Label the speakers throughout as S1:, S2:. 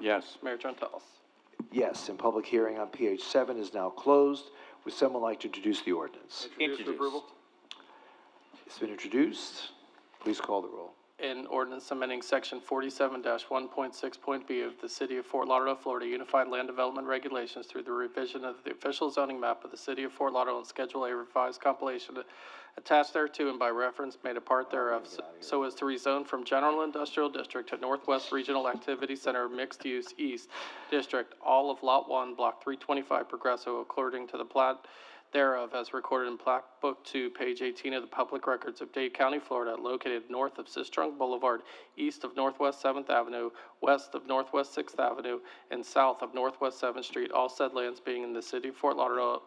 S1: Yes.
S2: Mayor Trentalis.
S3: Yes, and public hearing on PH seven is now closed. Would someone like to introduce the ordinance?
S2: Introduced for approval.
S3: It's been introduced. Please call the roll.
S2: An ordinance amending section forty-seven one point six point B of the City of Fort Lauderdale, Florida Unified Land Development Regulations through the revision of the official zoning map of the City of Fort Lauderdale and Schedule A revised compilation attached thereto and by reference made a part thereof so- so as to rezone from General Industrial District to Northwest Regional Activity Center Mixed Use East District, all of Lot One, Block three twenty-five Progresso according to the plat thereof as recorded in Plat Book Two, page eighteen of the Public Records of Dade County, Florida, located north of Sistrunk Boulevard, east of Northwest Seventh Avenue, west of Northwest Sixth Avenue, and south of Northwest Seventh Street, all said lands being in the city of Fort Lauderdale,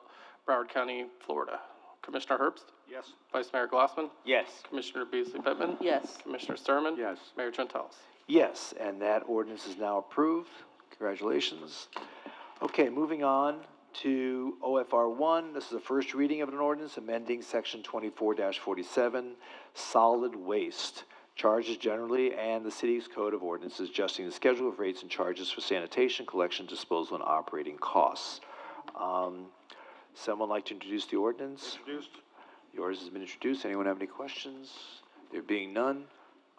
S2: Broward County, Florida. Commissioner Herbst?
S1: Yes.
S2: Vice Mayor Glassman?
S4: Yes.
S2: Commissioner Beasley Pittman?
S5: Yes.
S2: Commissioner Sturman?
S1: Yes.
S2: Mayor Trentalis.
S3: Yes, and that ordinance is now approved. Congratulations. Okay, moving on to OFR one. This is the first reading of an ordinance amending section twenty-four forty-seven, solid waste. Charges generally and the city's code of ordinances adjusting the schedule of rates and charges for sanitation, collection, disposal, and operating costs. Um, someone like to introduce the ordinance?
S1: Introduced.
S3: Yours has been introduced. Anyone have any questions? There being none,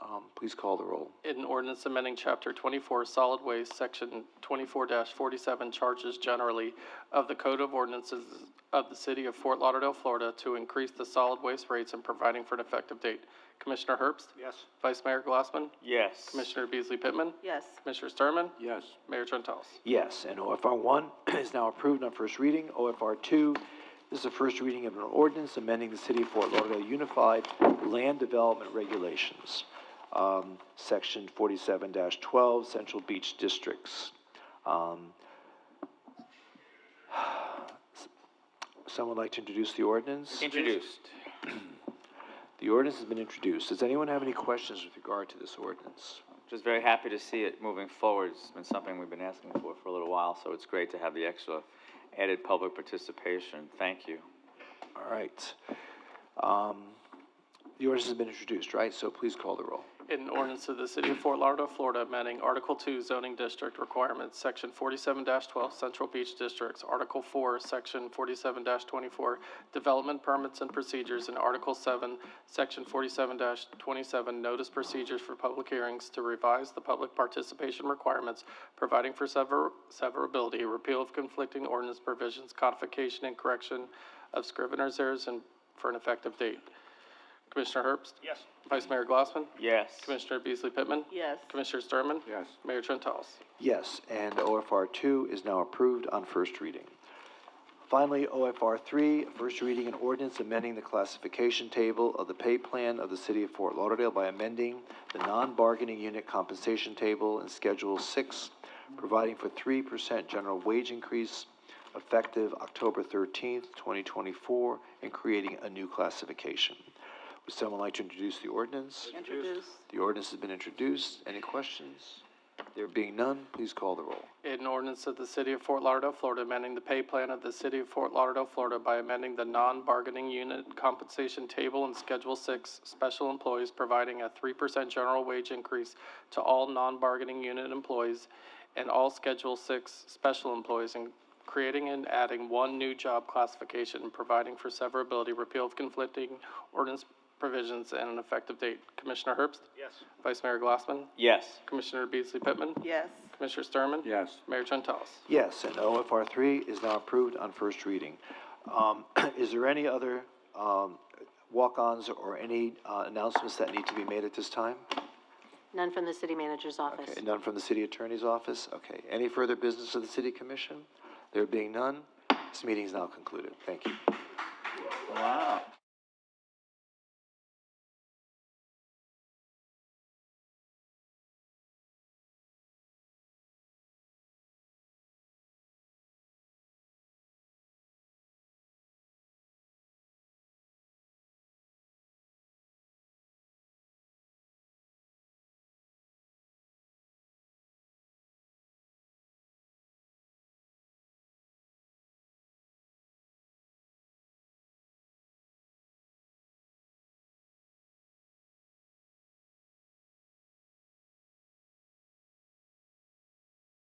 S3: um, please call the roll.
S2: An ordinance amending chapter twenty-four, solid waste, section twenty-four forty-seven, charges generally of the Code of Ordinances of the City of Fort Lauderdale, Florida, to increase the solid waste rates and providing for an effective date. Commissioner Herbst?
S1: Yes.
S2: Vice Mayor Glassman?
S4: Yes.
S2: Commissioner Beasley Pittman?
S5: Yes.
S2: Commissioner Sturman?
S1: Yes.
S2: Mayor Trentalis.
S3: Yes, and OFR one is now approved on first reading. OFR two this is the first reading of an ordinance amending the City of Fort Lauderdale Unified Land Development Regulations, um, section forty-seven twelve, Central Beach Districts. Um, someone like to introduce the ordinance?
S4: Introduced.
S3: The ordinance has been introduced. Does anyone have any questions with regard to this ordinance?
S4: Just very happy to see it moving forward. It's been something we've been asking for for a little while, so it's great to have the extra added public participation. Thank you.
S3: All right. Um, the ordinance has been introduced, right? So please call the roll.
S2: An ordinance of the City of Fort Lauderdale, Florida, amending Article Two zoning district requirements, Section forty-seven twelve, Central Beach Districts, Article Four, Section forty-seven twenty-four, Development Permits and Procedures, and Article Seven, Section forty-seven twenty-seven, Notice Procedures for Public Hearings to revise the public participation requirements, providing for sever- severability, repeal of conflicting ordinance provisions, codification and correction of scrivener's errors, and for an effective date. Commissioner Herbst?
S1: Yes.
S2: Vice Mayor Glassman?
S4: Yes.
S2: Commissioner Beasley Pittman?
S5: Yes.
S2: Commissioner Sturman?
S1: Yes.
S2: Mayor Trentalis.
S3: Yes, and OFR two is now approved on first reading. Finally, OFR three, first reading an ordinance amending the classification table of the pay plan of the City of Fort Lauderdale by amending the non-bargaining unit compensation table in Schedule six, providing for three percent general wage increase effective October thirteenth, twenty twenty-four, and creating a new classification. Would someone like to introduce the ordinance?
S5: Introduced.
S3: The ordinance has been introduced. Any questions? There being none, please call the roll.
S2: An ordinance of the City of Fort Lauderdale, Florida, amending the pay plan of the City of Fort Lauderdale, Florida by amending the non-bargaining unit compensation table in Schedule Six, special employees providing a three percent general wage increase to all non-bargaining unit employees and all Schedule Six special employees, and creating and adding one new job classification and providing for severability, repeal of conflicting ordinance provisions, and an effective date. Commissioner Herbst?
S1: Yes.
S2: Vice Mayor Glassman?
S4: Yes.
S2: Commissioner Beasley Pittman?
S5: Yes.
S2: Commissioner Sturman?
S1: Yes.
S2: Mayor Trentalis.
S3: Yes, and OFR three is now approved on first reading. Um, is there any other, um, walk-ons or any, uh, announcements that need to be made at this time?
S6: None from the city manager's office.
S3: Okay, none from the city attorney's office? Okay. Any further business of the city commission? There being none, this meeting is now concluded. Thank you.
S4: Wow.